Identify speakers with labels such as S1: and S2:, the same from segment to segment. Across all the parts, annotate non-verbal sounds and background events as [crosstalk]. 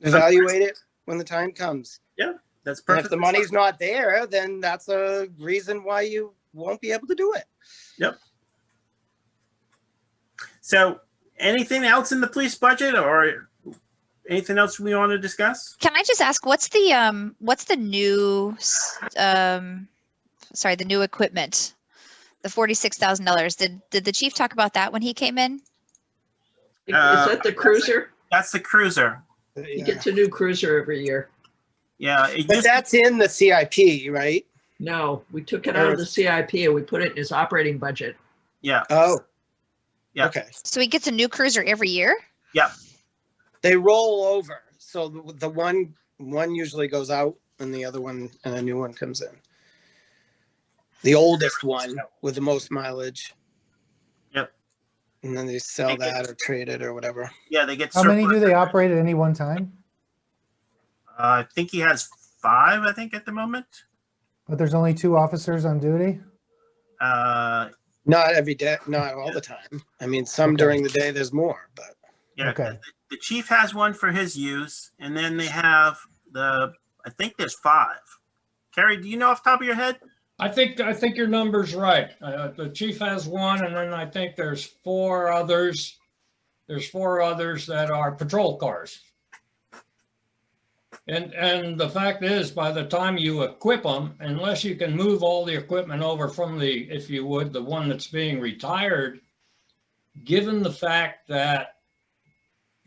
S1: evaluate it when the time comes.
S2: That's
S1: And
S2: perfect.
S1: if the money's not there, then that's a reason why you won't be able to do it.
S2: So, anything else in the police budget or anything else we want to discuss?
S3: Can I just ask, what's the, um, what's the new, s- um, sorry, the new equipment? The forty-six thousand dollars. Did, did the chief talk about that when he came in?
S4: Is
S2: Uh,
S4: that the cruiser?
S2: That's the cruiser.
S4: He gets a new cruiser every year.
S2: Yeah. It
S1: But
S2: used,
S1: that's in the CIP, right?
S4: No, we took it out of the CIP and we put it in his operating budget.
S2: yeah.
S1: Oh.
S2: Yeah.
S1: Okay.
S3: So he gets a new cruiser every year?
S1: They roll over. So the the one, one usually goes out and the other one, and a new one comes in. The oldest one with the most mileage.
S2: Yep.
S1: And then they sell that or trade it or whatever.
S2: Yeah. They get.
S5: How many do
S2: surplus.
S5: they operate at any one time?
S2: Uh, I think he has five. I think at the moment.
S5: But there's only two officers on duty?
S2: Uh,
S1: Not every day, not all the time. I mean, some
S5: Okay.
S1: during the day, there's more, but
S2: yeah.
S5: Okay.
S2: The chief has one for his use, and then they have the. I think there's five. Carrie, do you know off the top of your head?
S6: I think, I think your number's right. Uh, The chief has one, and then I think there's four others. There's four others that are patrol cars. And, and the fact is, by the time you equip them, unless you can move all the equipment over from the, if you would, the one that's being retired, given the fact that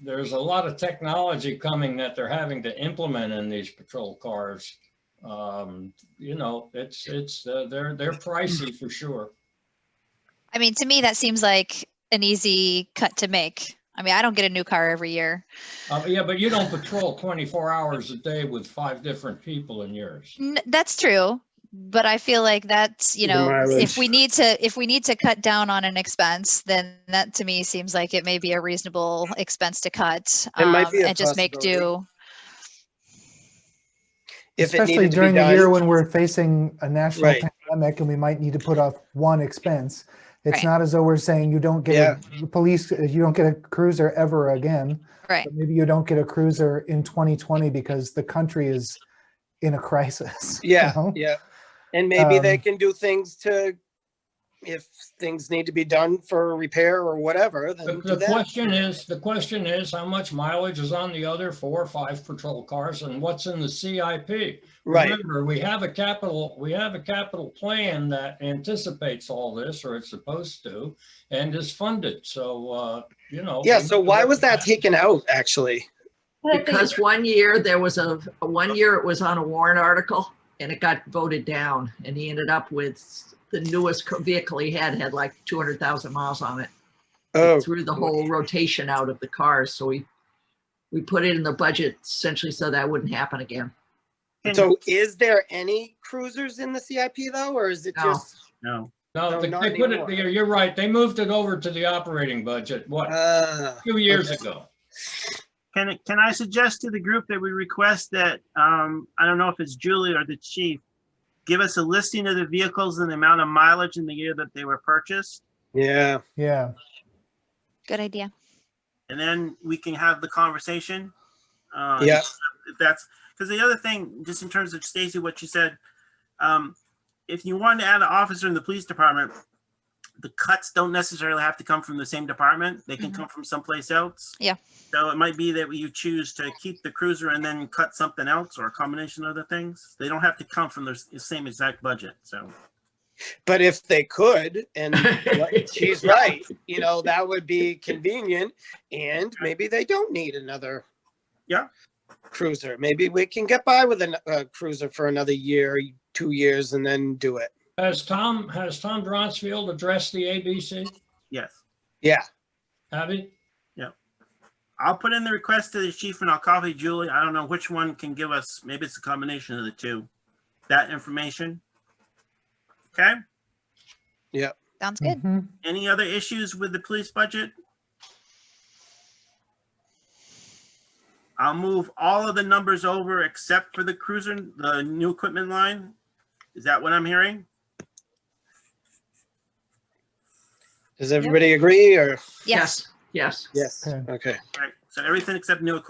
S6: there's a lot of technology coming that they're having to implement in these patrol cars, um, you know, it's, it's, uh, they're, they're pricey for sure.
S3: I mean, to me, that seems like an easy cut to make. I mean, I don't get a new car every year.
S6: Uh, yeah, but you don't patrol twenty-four hours a day with five different people in yours.
S3: N- That's true, but I feel like that's, you
S1: The
S3: know,
S1: mileage.
S3: if we need to, if we need to cut down on an expense, then that to me seems like it may be a reasonable expense to cut.
S1: It might
S3: um,
S1: be a
S3: And just make
S1: possibility.
S3: do.
S1: if it
S5: Especially
S1: needed to be
S5: during the year
S1: done,
S5: when we're facing a national
S1: Right.
S5: pandemic and we might need to put off one expense. It's
S3: Right.
S5: not as though we're saying you don't get a police, you don't get a cruiser ever again.
S3: Right.
S5: But maybe you don't get a cruiser in 2020 because the country is in a crisis. [laughs] you
S1: yeah,
S5: know?
S1: yeah. And maybe they
S5: Um,
S1: can do things to, if things need to be done for repair or whatever,
S6: The
S1: then do
S6: the
S1: that.
S6: question is, the question is, how much mileage is on the other four or five patrol cars and what's in the CIP?
S1: Right,
S6: Remember, we have a capital, we have a capital plan that anticipates all this, or it's supposed to, and is funded, so, uh, you know.
S1: yeah,
S6: we
S1: so
S6: need to
S1: why
S6: look
S1: was
S6: at
S1: that taken out, actually?
S4: Because one year there was a, one year it was on a warrant article and it got voted down and he ended up with the newest co- vehicle he had, had like two hundred thousand miles on it.
S1: Oh,
S4: Threw the whole rotation out of the cars, so we, we put it in the budget essentially so that wouldn't happen again.
S1: so is there any cruisers in the CIP though, or is it
S4: No.
S1: just?
S2: No.
S1: No,
S6: No, they-
S1: not
S6: they put it,
S1: anymore.
S6: there. you're right. They moved it over to the operating budget, what,
S1: Ah,
S6: two years
S1: okay.
S6: ago?
S2: Can I- can I suggest to the group that we request that um, I don't know if it's Julie or the chief give us a listing of the vehicles and the amount of mileage in the year that they were purchased,
S1: Yeah,
S5: Yeah.
S3: Good idea.
S2: and then we can have the conversation. Uh,
S1: yeah,
S2: if that's because the other thing, just in terms of Stacy, what you said, um, if you want to add an officer in the police department, the cuts don't necessarily have to come from the same department. They can
S3: Mhm.
S2: come from someplace else.
S3: Yeah.
S2: So it might be that you choose to keep the cruiser and then cut something else or a combination of the things. They don't have to come from the s- the same exact budget. So
S1: but if they could, and what- she's right, you know, that would be convenient, and maybe they don't need another.
S2: Yeah.
S1: Cruiser, maybe we can get by with a uh, cruiser for another year, two years, and then do it.
S6: Has Tom, has Tom Dronsfield addressed the ABC?
S2: yes,
S1: Yeah,
S6: Have he?
S2: I'll put in the request to the chief and I'll copy Julie. I don't know which one can give us. Maybe it's a combination of the two. That information. Okay.
S3: Sounds good.
S5: Mhm.
S2: Any other issues with the police budget? I'll move all of the numbers over except for the cruiser, the new equipment line. Is that what I'm hearing?
S1: does everybody agree, or?
S3: Yes.
S4: yes.
S1: Yes,
S5: Okay.
S1: okay.
S2: Right. So everything except new equipment